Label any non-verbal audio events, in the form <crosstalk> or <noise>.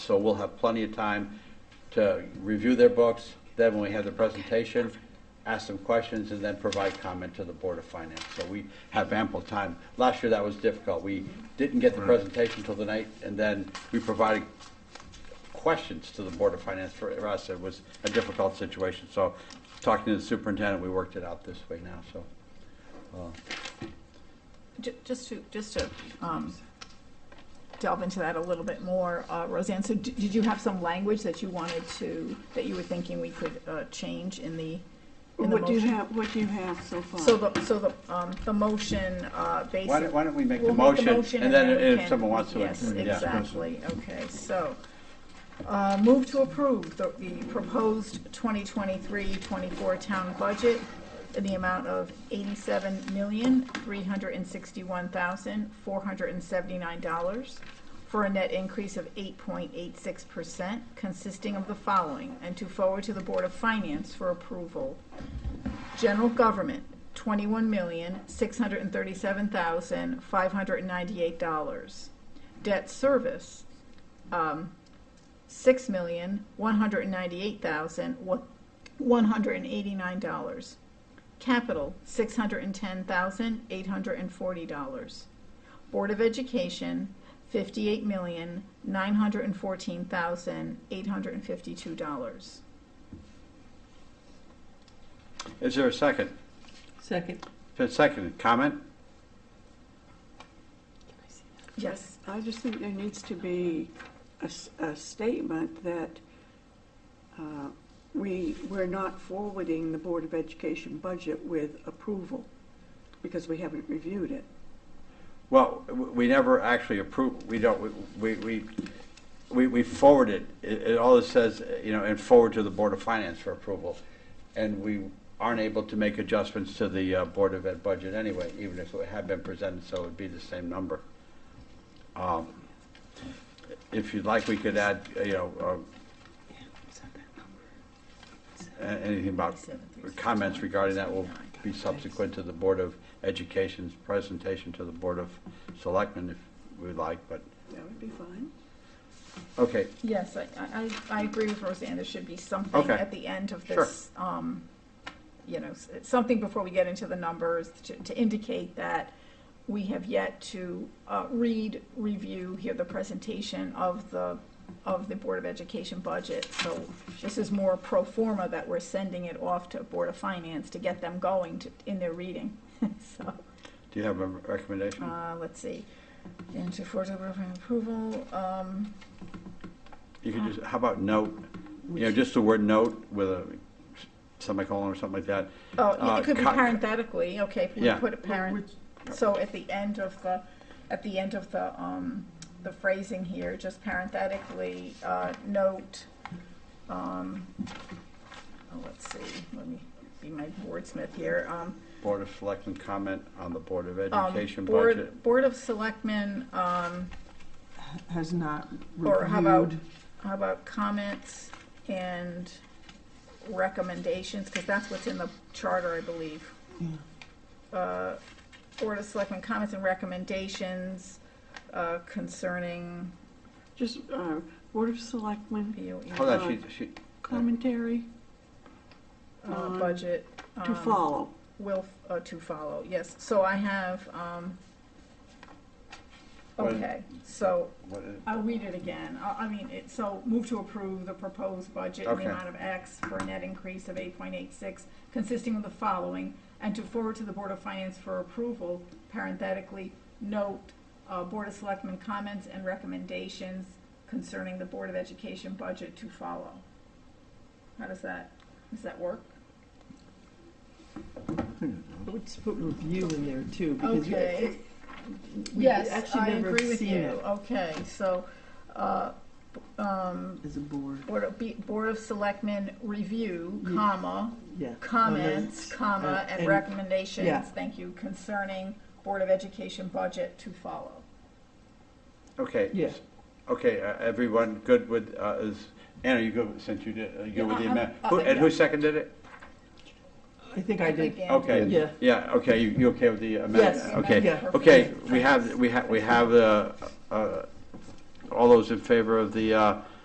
So we'll have plenty of time to review their books, then when we have the presentation, ask them questions, and then provide comment to the Board of Finance. So we have ample time. Last year, that was difficult. We didn't get the presentation till the night, and then we provided questions to the Board of Finance. For us, it was a difficult situation. So talking to the superintendent, we worked it out this way now, so. Ju- Just to, just to um, delve into that a little bit more, uh, Roseanne, so d- did you have some language that you wanted to, that you were thinking we could uh, change in the, in the What do you motion? have, what do you have so far? So the, so the, um, the motion uh, basically. Why don't, why don't we make the We'll motion? And then we if can- someone wants to. Yes, yeah. exactly, okay, so, uh, move to approve the, the proposed 2023-24 town budget in the amount of $87,361,479 for a net increase of 8.86%, consisting of the following, and to forward to the Board of Finance for approval. General government, twenty-one million, six hundred and thirty-seven thousand, five hundred and ninety-eight dollars. Debt service, um, six million, one hundred and ninety-eight thousand, one hundred and eighty-nine dollars. Capital, six hundred and ten thousand, eight hundred and forty dollars. Board of Education, fifty-eight million, nine hundred and fourteen thousand, eight hundred and fifty-two dollars. Is there a second? Second. Been seconded. Comment? Yes. I just think there needs to be a, s- a statement that uh, we, we're not forwarding the Board of Education budget with approval because we haven't reviewed it. Well, w- we never actually approve, we don't, we, we, we, we forward it. It, it all it says, you know, and forward to the Board of Finance for approval. And we aren't able to make adjustments to the uh, Board of Ed budget anyway, even if it had been presented, so it'd be the same number. Um, If you'd like, we could add, you know, uh, a- anything about comments regarding that will be subsequent to the Board of Education's presentation to the Board of Selectmen if we'd like, but, That would be fine. okay, Yes, I, I, I I agree with Roseanne, there should be something Okay. at the end of Sure. this, um, you know, s- something before we get into the numbers to, to indicate that we have yet to, uh, read, review, hear the presentation of the, of the Board of Education budget. So this is more pro forma that we're sending it off to Board of Finance to get them going to, in their reading, <laughs> so. do you have a recommendation? Uh, let's see, and to forward to Board of Finance approval, um, You could just, how about note, you know, just the word note with a semicolon or something like that? Oh, yeah, Uh, it could be co- parenthetically, okay, if we Yeah. put a parent, so at the end of the, at the end of the, um, the phrasing here, just parenthetically, uh, note, um, oh, let's see, let me be my wordsmith here, um, Board of Selectmen comment on the Board of um, Education budget. Board, Board of Selectmen, um, Has not Or how about, reviewed. how about comments and recommendations, because that's what's in the charter, I believe. Yeah. Uh, Board of Selectmen comments and recommendations uh, concerning Just uh, Board of Selectmen Hold BOE on, she, she, commentary uh, budget. to um, follow. Will, uh, to follow, yes, so I have, um, Well- okay, so what is- I'll read it again. I, I mean, it, so move to approve the proposed budget in the Okay. amount of X for a net increase of eight point eight six, consisting of the following, and to forward to the Board of Finance for approval, parenthetically, note, uh, Board of Selectmen comments and recommendations concerning the Board of Education budget to follow. How does that, does that work? Let's put review in there too, because we- Okay. we've Yes, actually I never agree with seen you. it Okay, so, uh, b- um, as a board, Board of, Be- Board of Selectmen review, Ye- comma, yeah. comments, uh, comma, and and- yeah. recommendations, thank you, concerning Board of Education budget to follow. okay. Yeah. Okay, uh, everyone good with, uh, is, Anna, you good, with- since you did, uh, you Yeah, good with the I- amendment? I'm- Who- uh, And who yeah. seconded it? I think I did. Again, Okay. Yeah. Yeah, okay, you, you okay with the amendment? Yes, Okay, yeah. okay, we have, we have, we have, uh, uh, All those in favor of the uh,